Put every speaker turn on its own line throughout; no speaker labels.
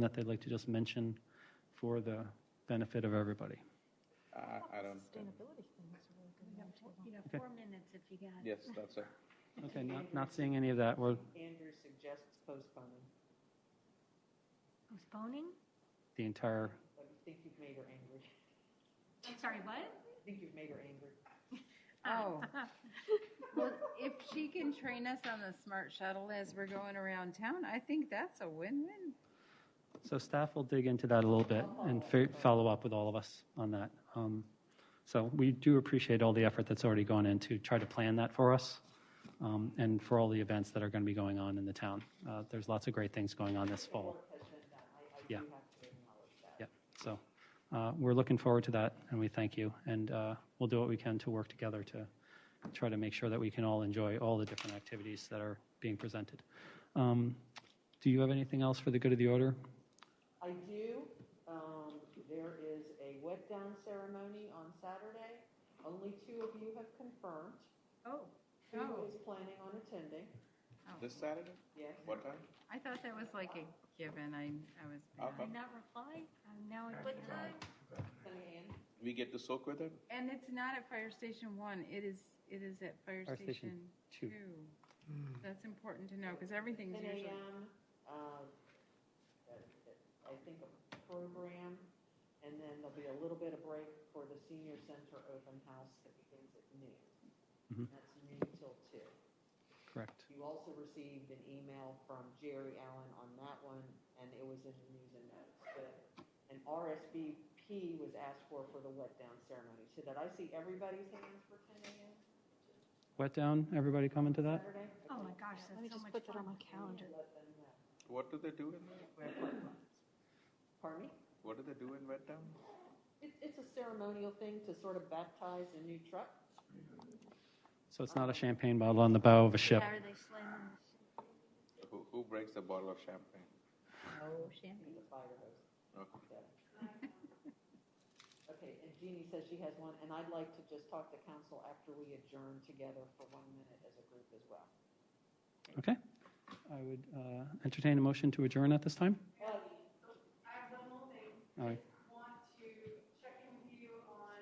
that they'd like to just mention for the benefit of everybody?
Uh, I, I don't,
Sustainability thing is really good. one, too.
You know,
Okay.
four minutes if you got it.
yes, that's it.
Okay, not, not seeing any of that. Well,
Andrew suggests postponing,
Postponing?
the entire,
but I think you've made her angry.
I'm sorry, what?
I think you've made her angry.
Oh. Well, if she can train us on the smart shuttle as we're going around town, I think that's a win-win.
so staff will dig into that a little bit and fi- follow up with all of us on that. Um, So we do appreciate all the effort that's already gone in to try to plan that for us um, and for all the events that are going to be going on in the town. Uh, There's lots of great things going on this fall.
Work has been done. I, I
Yeah.
do have to acknowledge that.
Yep, so uh, we're looking forward to that, and we thank you. And uh, we'll do what we can to work together to try to make sure that we can all enjoy all the different activities that are being presented. Um, Do you have anything else for the good of the order?
I do, um, there is a wet down ceremony on Saturday. Only two of you have confirmed.
Oh.
Who is planning on attending?
This Saturday?
Yes.
What time?
I thought that was like a given. I, I was.
Okay.
Did not reply? Um, Now at what time?
Ten a.m.
We get to soak with it?
And it's not at Fire Station One. It is, it is at Fire
Fire Station
Station
two.
Two. That's important to know because everything's
10
usually.
a.m., um, I think a program, and then there'll be a little bit of break for the senior center open house that begins at noon.
Mhm.
That's noon till two.
Correct.
You also received an email from Jerry Allen on that one, and it was in the news and notes. But an RSVP was asked for for the wet down ceremony. So did I see everybody's hands for 10 a.m.
Wet down, everybody coming to that?
Saturday?
Oh my gosh,
Let me
that's so
just
much
put that on
fun.
my calendar.
Let them know.
What do they do in there?
Pardon me?
What do they do in Wet Down?
It's, it's a ceremonial thing to sort of baptize a new truck.
So it's not a champagne bottle on the bow of a ship.
Are they slamming?
Who, who breaks a bottle of champagne?
Oh, champagne.
It's a fire hose.
Okay.
so. Okay, and Jeannie says she has one, and I'd like to just talk to council after we adjourn together for one minute as a group as well.
Okay. I would uh, entertain a motion to adjourn at this time.
Well,
I have one more thing.
All right.
Want to check in with you on,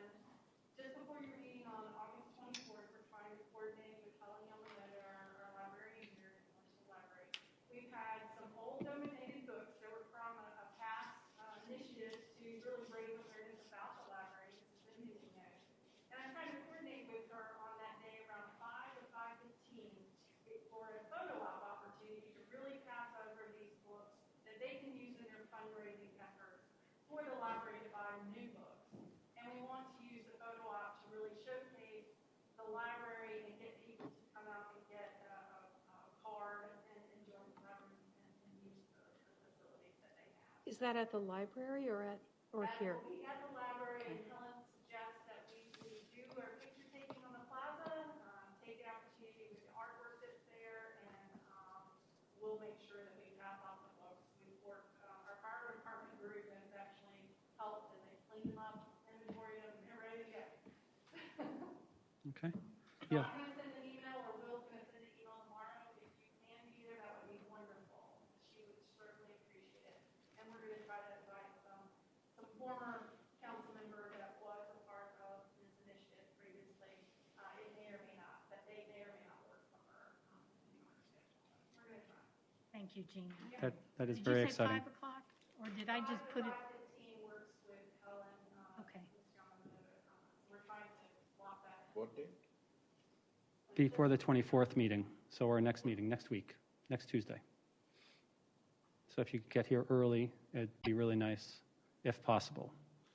just before your meeting on August twenty-fourth, we're trying to coordinate with Helen Yamamoto, our our library, and your commercial library. We've had some old donated books that were from a, a past uh, initiative to really raise awareness about the library, this has been hitting notes. And I'm trying to coordinate with her on that day around five to five fifteen for a photo op opportunity to really pass over these books that they can use in their fundraising efforts for the library to buy new books. And we want to use the photo op to really showcase the library and get people to come out and get a, a, a card and enjoy the library and, and use the the facilities that they have.
Is that at the library or at, or
That
here?
will be at the library, and Helen suggests that we, we do our picture taking on the plaza, um, take the opportunity with the artwork that's there, and, um, we'll make sure that we pass off the books. We work, uh, our fire department group has actually helped, and they clean them up, inventory them, and they're ready to go.
Okay.
So
Yeah.
I'm gonna send an email, or Will's gonna send an email tomorrow, if you can be there, that would be wonderful. She would certainly appreciate it, and we're gonna try to invite some, some former council member that was a part of this initiative previously. Uh, it may or may not, that they may or may not work for her, um, depending on her schedule. We're gonna try.
Thank you, Jean.
That, that is
Did you
very
say
exciting.
Five o'clock, or did I just put it?
Five to fifteen works with Helen, uh,
Okay.
Ms. Yamamoto, um, We're trying to swap that.
What day?
Before the 24th meeting, so our next meeting, next week, next Tuesday. So if you could get here early, it'd be really nice, if possible.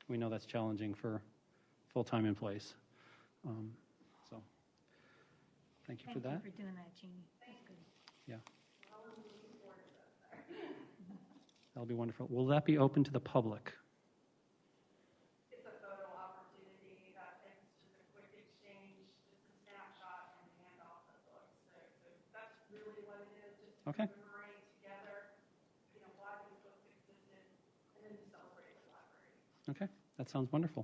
We know that's challenging for full-time employees. Um, So, thank you for
Thank
that.
you for doing that, Jean. That's good.
Yeah. That'll be wonderful. Will that be open to the public?
it's a photo opportunity, that it's just a quick exchange, just a snapshot and handoff of books. So, so that's really what it is, just
Okay.
commemorate together, you know, why these books existed, and then to celebrate the library.
Okay, that sounds wonderful.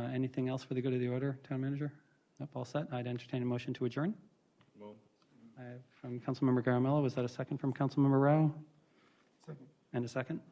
Uh, Anything else for the good of the order, Town Manager? Nope, all set. I'd entertain a motion to adjourn.
Move.
I have From Councilmember Garamella, was that a second from Councilmember Rao? Second. And a second?